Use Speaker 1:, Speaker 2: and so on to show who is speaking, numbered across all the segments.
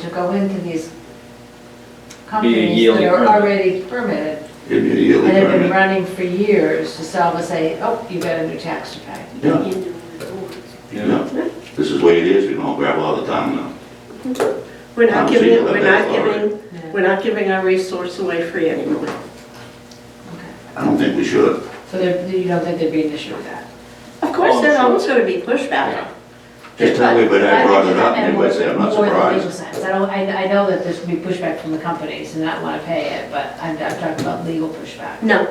Speaker 1: to go into these
Speaker 2: Be a
Speaker 1: companies
Speaker 2: yearly
Speaker 1: that are
Speaker 2: permit.
Speaker 1: already permitted
Speaker 3: It'd be a
Speaker 1: and
Speaker 3: yearly
Speaker 1: have been
Speaker 3: permit.
Speaker 1: running for years to sell and say, oh, you got a new tax to pay.
Speaker 3: Yeah,
Speaker 2: Yeah.
Speaker 3: yeah. This is the way it is, we don't gravel all the time now.
Speaker 4: We're not giving, it- we're not
Speaker 3: Conversation about
Speaker 4: giving, we're not giving our resource away free anymore.
Speaker 3: I don't think we should.
Speaker 1: So there, you don't think there'd be an issue with that?
Speaker 4: Of course,
Speaker 2: Oh,
Speaker 4: there's
Speaker 2: sure.
Speaker 4: always gonna be pushback.
Speaker 3: Just tell everybody I
Speaker 1: think
Speaker 3: brought it up,
Speaker 1: that
Speaker 3: and everybody say, I'm not
Speaker 1: more than legal
Speaker 3: surprised.
Speaker 1: sense. I don't, I, I know that there's gonna be pushback from the companies and not wanna pay it, but I'm, I'm talking about legal pushback.
Speaker 4: No,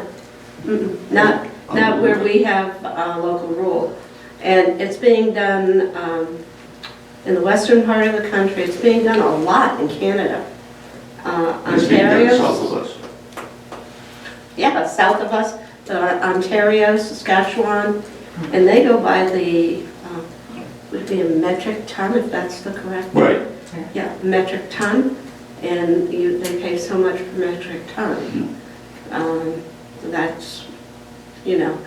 Speaker 4: Mm-mm. not, not where we have a local rule. And it's being done um, in the western part of the country, it's being done a lot in Canada. Uh,
Speaker 3: It's being done
Speaker 4: Ontario's-
Speaker 3: south of us.
Speaker 4: Yeah, south of us, uh, Ontario, Saskatchewan, and they go by the, uh, would be a metric ton, if that's the correct.
Speaker 3: Right.
Speaker 4: Yeah, metric ton, and you, they pay so much per metric ton. Um, That's, you know,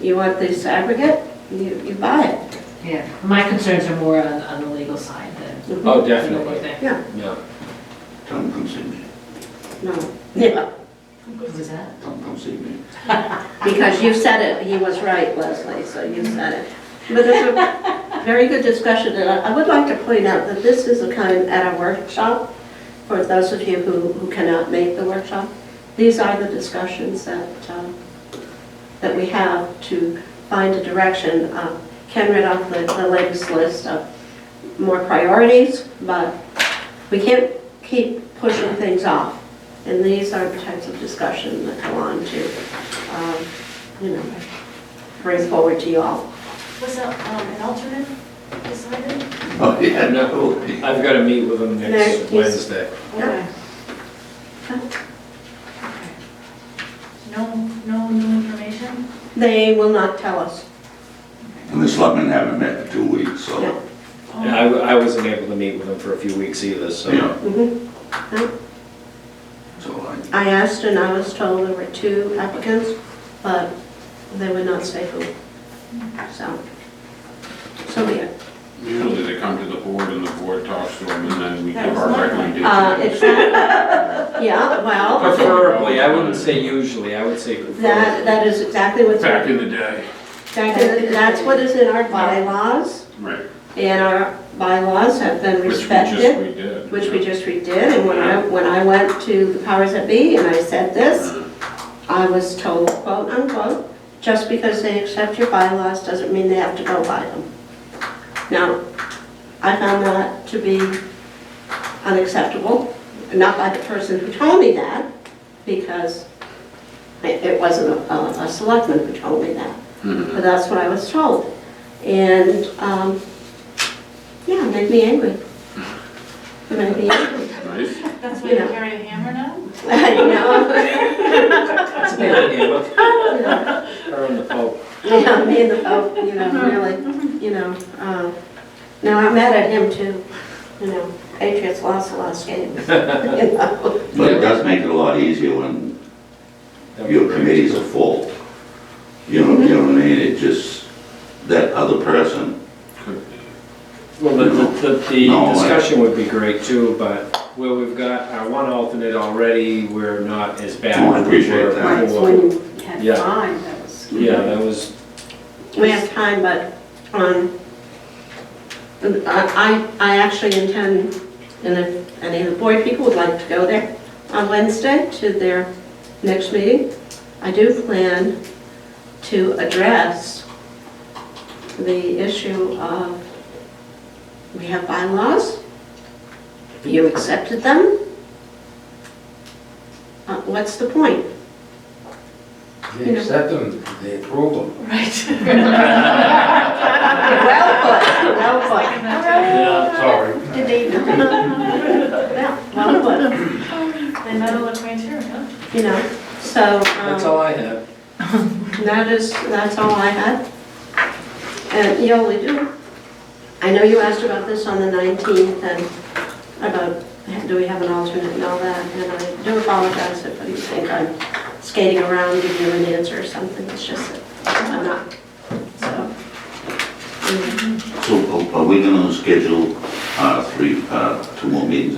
Speaker 4: you want this aggregate, you, you buy it.
Speaker 1: Yeah, my concerns are more on, on the legal side than.
Speaker 2: Oh,
Speaker 1: than what you
Speaker 2: definitely,
Speaker 1: think.
Speaker 4: Yeah,
Speaker 2: yeah.
Speaker 3: Come, come see me.
Speaker 4: no, yeah,
Speaker 1: Who's that?
Speaker 3: Come, come see me.
Speaker 4: because you said it, he was right, Leslie, so you said it. But it's a very good discussion, and I I would like to point out that this is a kind, at a workshop, for those of you who, who cannot make the workshop, these are the discussions that, um, that we have to find a direction. Uh, Ken read off the, the latest list of more priorities, but we can't keep pushing things off. And these are the types of discussion that go on to, um, you know, bring forward to you all.
Speaker 5: Was a, um, an alternate decided?
Speaker 3: Oh, yeah, no.
Speaker 2: I've got to meet with them
Speaker 4: There,
Speaker 2: next
Speaker 4: he's-
Speaker 2: Wednesday.
Speaker 5: Okay. No, no new information?
Speaker 4: They will not tell us.
Speaker 3: And the selectmen haven't met in two weeks,
Speaker 4: Yeah.
Speaker 3: so,
Speaker 2: And I, I wasn't able to meet with them for a few weeks either, so.
Speaker 3: yeah,
Speaker 4: Mhm.
Speaker 3: so I,
Speaker 4: I asked and I was told there were two applicants, but they would not say who. So, so be it.
Speaker 6: Usually they come to the board and the board talks to them and then we
Speaker 5: That
Speaker 6: give
Speaker 5: was
Speaker 6: our
Speaker 4: Uh,
Speaker 5: my-
Speaker 4: it's
Speaker 6: recommendations.
Speaker 4: not, yeah, well,
Speaker 2: Preferably, I wouldn't say usually, I would say
Speaker 4: that,
Speaker 2: preferably.
Speaker 4: that is exactly what's,
Speaker 6: Back
Speaker 4: back
Speaker 6: in the day,
Speaker 4: in- that's what is in our bylaws,
Speaker 6: right,
Speaker 4: and our bylaws have been
Speaker 6: which we just, we
Speaker 4: respected,
Speaker 6: did.
Speaker 4: which we just redid, and when I, when I went to the powers that be and I said this, I was told, quote unquote, just because they accept your bylaws doesn't mean they have to go by them. Now, I found that to be unacceptable, not by the person who told me that, because it it wasn't a- a a selectman who told me that,
Speaker 6: Mm-hmm.
Speaker 4: but that's what I was told. And, um, yeah, it made me angry. It made me angry,
Speaker 6: Nice.
Speaker 5: That's why
Speaker 4: You
Speaker 5: you
Speaker 4: know.
Speaker 5: carry a hammer now?
Speaker 4: you know?
Speaker 2: That's a good idea, but
Speaker 4: You know.
Speaker 2: her and the Pope.
Speaker 4: Yeah, me and the Pope, you know, really, you know. uh, No, I'm mad at him too, you know. Patriots lost the last game. you know.
Speaker 3: but it does make it a lot easier when
Speaker 2: That would
Speaker 3: your
Speaker 2: be-
Speaker 3: committees are full. You know, you know what I mean, it just, that other person,
Speaker 2: Well, the, the, the-
Speaker 3: No,
Speaker 2: the
Speaker 3: I-
Speaker 2: discussion would be great too, but where we've got our one alternate already, we're not as bad.
Speaker 3: Oh, I
Speaker 2: as we
Speaker 3: appreciate
Speaker 2: were
Speaker 3: that.
Speaker 4: It's
Speaker 2: before.
Speaker 4: when you had
Speaker 2: Yeah.
Speaker 4: time, that was.
Speaker 2: Yeah, that was,
Speaker 4: We have time, but, um, I, I I actually intend, and if any of the board people would like to go there on Wednesday to their next meeting, I do plan to address the issue of, we have bylaws, you accepted them. Uh, What's the point? You
Speaker 7: They
Speaker 4: know.
Speaker 7: accept them, they approve them.
Speaker 4: Well put, well put.
Speaker 7: Sorry.
Speaker 5: Did they?
Speaker 4: No, no, Yeah, well put,
Speaker 5: They metal acquainted, huh?
Speaker 4: you know, so,
Speaker 2: that's
Speaker 4: um,
Speaker 2: all I had.
Speaker 4: that is, that's all I had. And Yoli, do, I know you asked about this on the 19th and about, do we have an alternate and all that? And I do apologize if you think I'm skating around giving you an answer or something, it's just that I'm not, so. mm.
Speaker 3: so are- are we gonna schedule, uh, three, uh, two more meetings